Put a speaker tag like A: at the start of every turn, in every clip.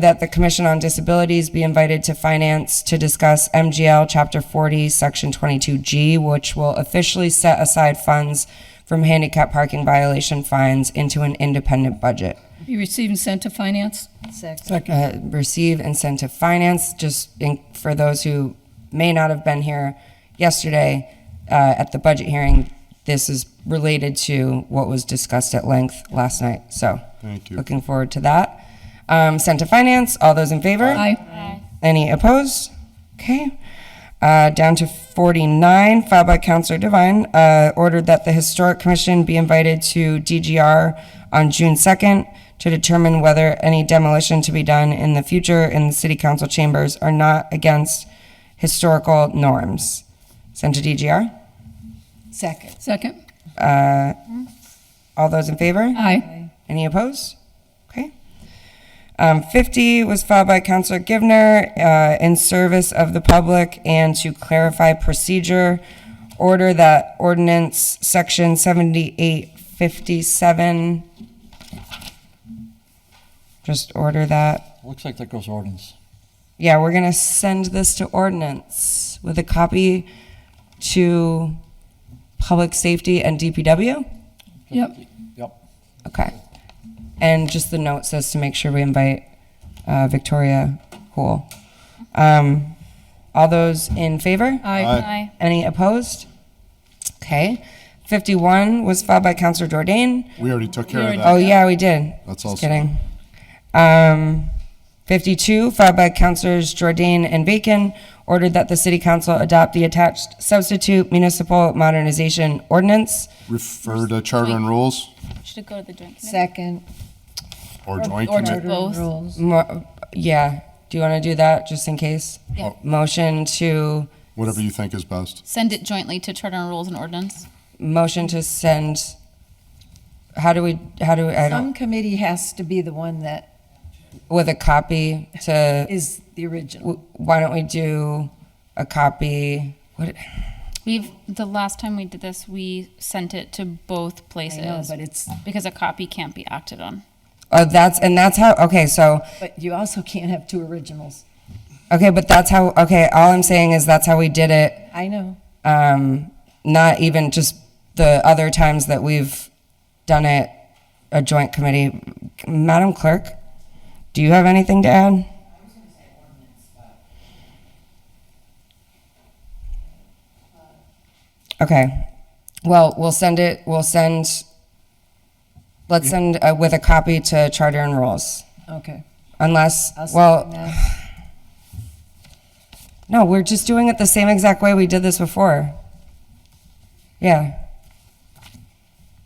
A: that the Commission on Disabilities be invited to Finance to discuss MGL Chapter 40, Section 22G, which will officially set aside funds from handicap parking violation fines into an independent budget.
B: Be received and sent to finance?
C: Second.
A: uh, receive incentive finance. Just in, for those who may not have been here yesterday uh, at the budget hearing, this is related to what was discussed at length last night. So,
D: Thank you.
A: Looking forward to that. Um, sent to finance. All those in favor?
B: Aye.
A: Any opposed? Okay. Uh, down to 49, filed by Counselor Devine, uh, ordered that the Historic Commission be invited to DGR on June 2nd to determine whether any demolition to be done in the future in the City Council chambers are not against historical norms. Sent to DGR.
C: Second.
B: Second?
A: All those in favor?
B: Aye.
A: Any opposed? Okay. Um, 50 was filed by Counselor Givner, uh, in service of the public and to clarify procedure, order that ordinance section 7857, just order that.
E: Looks like that goes ordinance.
A: Yeah, we're going to send this to ordinance with a copy to Public Safety and DPW?
B: Yep.
E: Yep.
A: Okay. And just the note says to make sure we invite uh, Victoria Cool. Um, all those in favor?
B: Aye.
C: Aye.
A: Any opposed? Okay. 51 was filed by Counselor Jordan.
D: We already took care of
B: already-
D: that.
A: Oh, yeah, we did.
D: That's
A: Just
D: also-
A: kidding. Um, 52, filed by Counselors Jordan and Bacon, ordered that the City Council adopt the attached substitute municipal modernization ordinance.
D: Refer to charter and rules
F: Should it go to the joint committee?
C: Second.
D: or joint
F: or
D: committee.
F: Both.
C: Rules.
A: Mo- Yeah, do you want to do that, just in case?
F: Yeah.
A: Motion to,
D: Whatever you think is best.
F: Send it jointly to Charter and Rules and Ordinance.
A: motion to send, how do we, how do, we- I don't,
C: Some committee has to be the one that
A: with a copy to,
C: is the original.
A: w- why don't we do a copy? What,
F: We've, the last time we did this, we sent it to both places.
C: know, but it's-
F: Because a copy can't be acted on.
A: oh, that's, and that's how, okay, so,
C: But you also can't have two originals.
A: okay, but that's how, okay, all I'm saying is that's how we did it
C: I know.
A: um, not even just the other times that we've done it, a joint committee. Madam Clerk, do you have anything to add? Okay, well, we'll send it, we'll send, let's send uh, with a copy to Charter and Rules,
C: Okay.
A: unless,
C: I'll second
A: well,
C: that.
A: No, we're just doing it the same exact way we did this before. Yeah.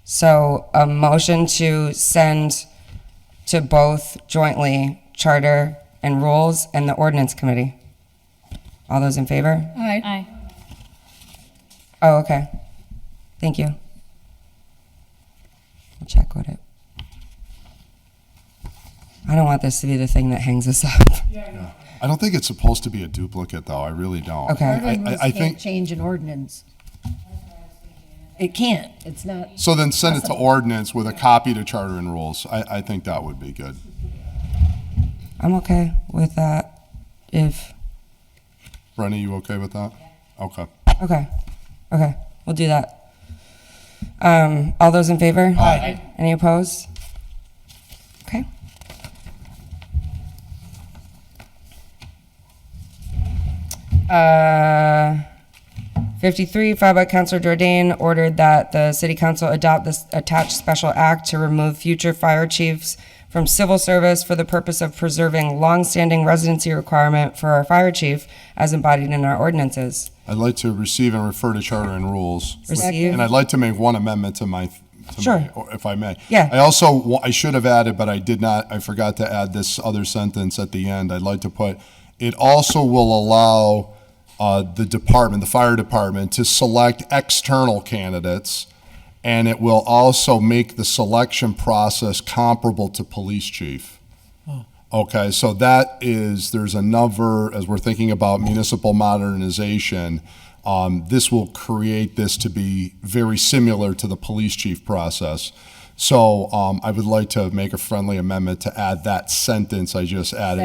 A: So a motion to send to both jointly charter and rules and the ordinance committee. All those in favor?
B: Aye.
F: Aye.
A: Oh, okay. Thank you. We'll check with it. I don't want this to be the thing that hangs us up.
D: I don't think it's supposed to be a duplicate, though. I really don't.
A: Okay.
D: I-
C: Charter and
D: I,
C: rules
D: I
C: can't
D: think,
C: change an ordinance. It can't. It's not.
D: so then send it to ordinance with a copy to charter and rules. I, I think that would be good.
A: I'm okay with that if,
D: Brenna, you okay with that? Okay.
A: Okay, okay, we'll do that. Um, all those in favor? Aye. Any opposed? Okay. Uh, fifty-three, filed by Counselor Jordan, ordered that the city council adopt this attached special act to remove future fire chiefs from civil service for the purpose of preserving longstanding residency requirement for our fire chief as embodied in our ordinances.
D: I'd like to receive and refer to charter and rules.
A: Receive.
D: And I'd like to make one amendment to my, to
A: Sure.
D: my- or if I may.
A: Yeah.
D: I also, wa- I should have added, but I did not, I forgot to add this other sentence at the end. I'd like to put, it also will allow uh, the department, the fire department, to select external candidates, and it will also make the selection process comparable to police chief. Okay, so that is, there's another, as we're thinking about municipal modernization, um, this will create this to be very similar to the police chief process. So, um, I would like to make a friendly amendment to add that sentence I just added